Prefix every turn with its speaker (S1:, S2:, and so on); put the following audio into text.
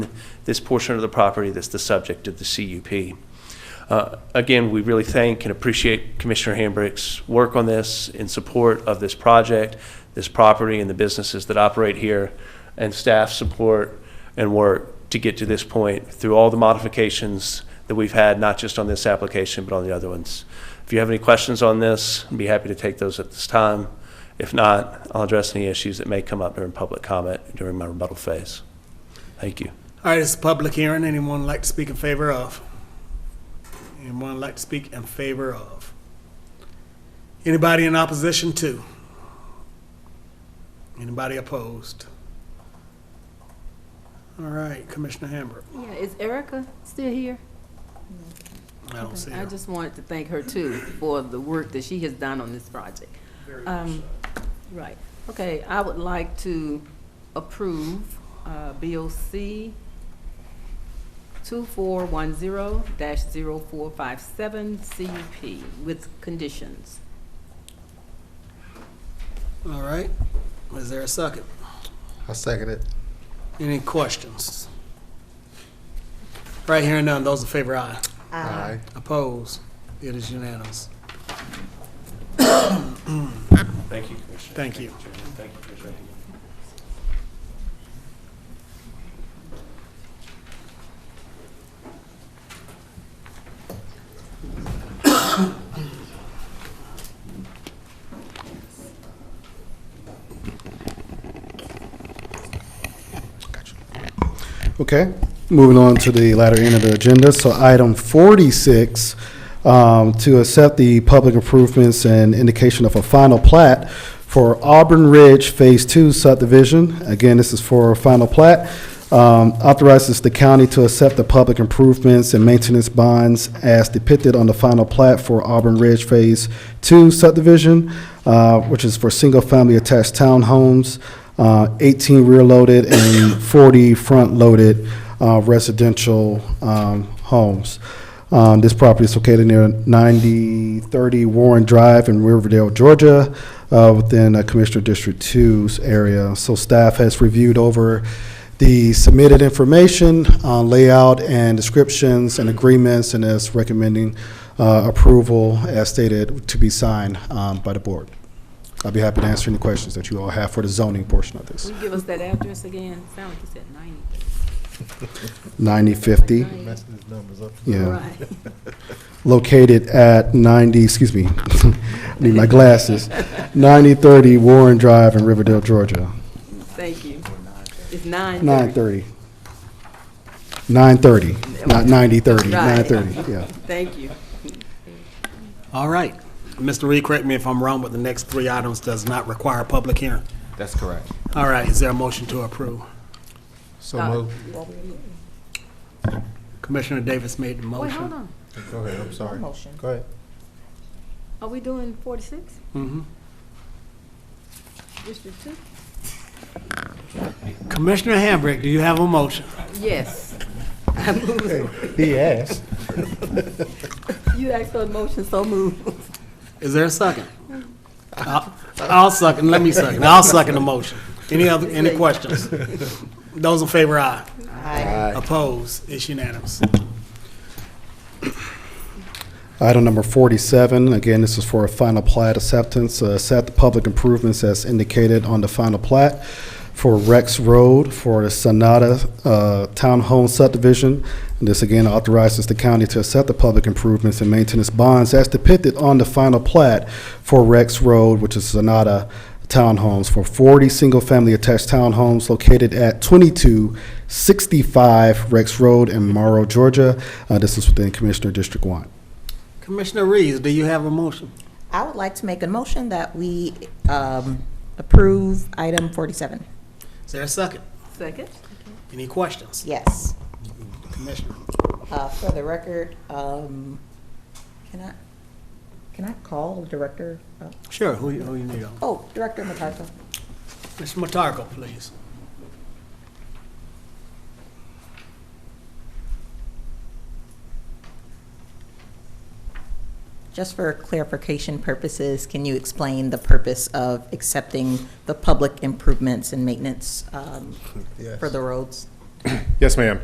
S1: this portion of the property that's the subject of the CUP. Uh, Again, we really thank and appreciate Commissioner Hambrick's work on this in support of this project, this property, and the businesses that operate here, and staff support and work to get to this point through all the modifications that we've had, not just on this application, but on the other ones. If you have any questions on this, I'd be happy to take those at this time. If not, I'll address any issues that may come up during public comment during my rebuttal phase. Thank you.
S2: All right, it's a public hearing. Anyone like to speak in favor of? Anyone like to speak in favor of? Anybody in opposition to? Anybody opposed? All right, Commissioner Hamburg.
S3: Yeah, is Erica still here?
S2: I don't see
S3: I
S2: her.
S3: just wanted to thank her too for the work that she has done on this project. Um, Right, okay, I would like to approve uh, BOC 2410-0457 CUP with conditions.
S2: All right, is there a second?
S4: I second it.
S2: Any questions? Right, hearing none. Those in favor, aye.
S4: Aye.
S2: Opposed? It is unanimous.
S1: Thank you, Commissioner.
S2: Thank you.
S1: Thank you, Commissioner.
S4: Okay, moving on to the latter end of the agenda. So item 46, um, to accept the public improvements and indication of a final plat for Auburn Ridge Phase 2 subdivision. Again, this is for a final plat. Um, Authorizes the county to accept the public improvements and maintenance bonds as depicted on the final plat for Auburn Ridge Phase 2 subdivision, uh, which is for single-family attached townhomes. uh, 18 rear-loaded and 40 front-loaded uh, residential um, homes. Um, This property is located near 9030 Warren Drive in Riverdale, Georgia, uh, within uh, Commissioner District 2's area. So staff has reviewed over the submitted information, uh, layout, and descriptions and agreements, and is recommending uh, approval as stated to be signed um, by the board. I'd be happy to answer any questions that you all have for the zoning portion of this.
S3: Will you give us that address again? Sound like you said 90.
S4: 9050,
S3: Like 90.
S4: yeah,
S3: Right.
S4: located at 90, excuse me, need my glasses, 9030 Warren Drive in Riverdale, Georgia.
S3: Thank you. It's 9:30.
S4: 930. 930, not 9030,
S3: Right.
S4: 930, yeah.
S3: Thank you.
S2: All right. Mr. Reed, correct me if I'm wrong, but the next three items does not require a public hearing.
S5: That's correct.
S2: All right, is there a motion to approve?
S4: So
S3: Uh,
S4: moved.
S2: Commissioner Davis made the
S3: Wait, hold
S2: motion.
S3: on.
S4: Go ahead, I'm sorry. Go ahead.
S3: Are we doing 46?
S2: Mhm.
S3: District 2?
S2: Commissioner Hambrick, do you have a motion?
S3: Yes.
S4: He asked.
S3: You asked for a motion, so moved.
S2: Is there a second? I'll I'll second, let me second, I'll second the motion. Any other, any questions? Those in favor, aye. Aye. Opposed, it's unanimous.
S4: Item number 47, again, this is for a final plat acceptance. Uh, Accept the public improvements as indicated on the final plat for Rex Road for the Sonata uh, Townhome subdivision. And This again authorizes the county to accept the public improvements and maintenance bonds as depicted on the final plat for Rex Road, which is Sonata Townhomes, for 40 single-family attached townhomes located at 2265 Rex Road in Morrow, Georgia. Uh, This is within Commissioner District 1.
S2: Commissioner Reeves, do you have a motion?
S6: I would like to make a motion that we um, approve item 47.
S2: Is there a second?
S3: Second?
S2: Any questions?
S6: Yes.
S2: Commissioner,
S6: Uh, For the record, um, can I, can I call Director, uh,
S2: sure, who you, who you need on?
S6: oh, Director MacArthur?
S2: Mr. Matarco, please.
S6: Just for clarification purposes, can you explain the purpose of accepting the public improvements and maintenance um, for the roads?
S7: Yes, ma'am.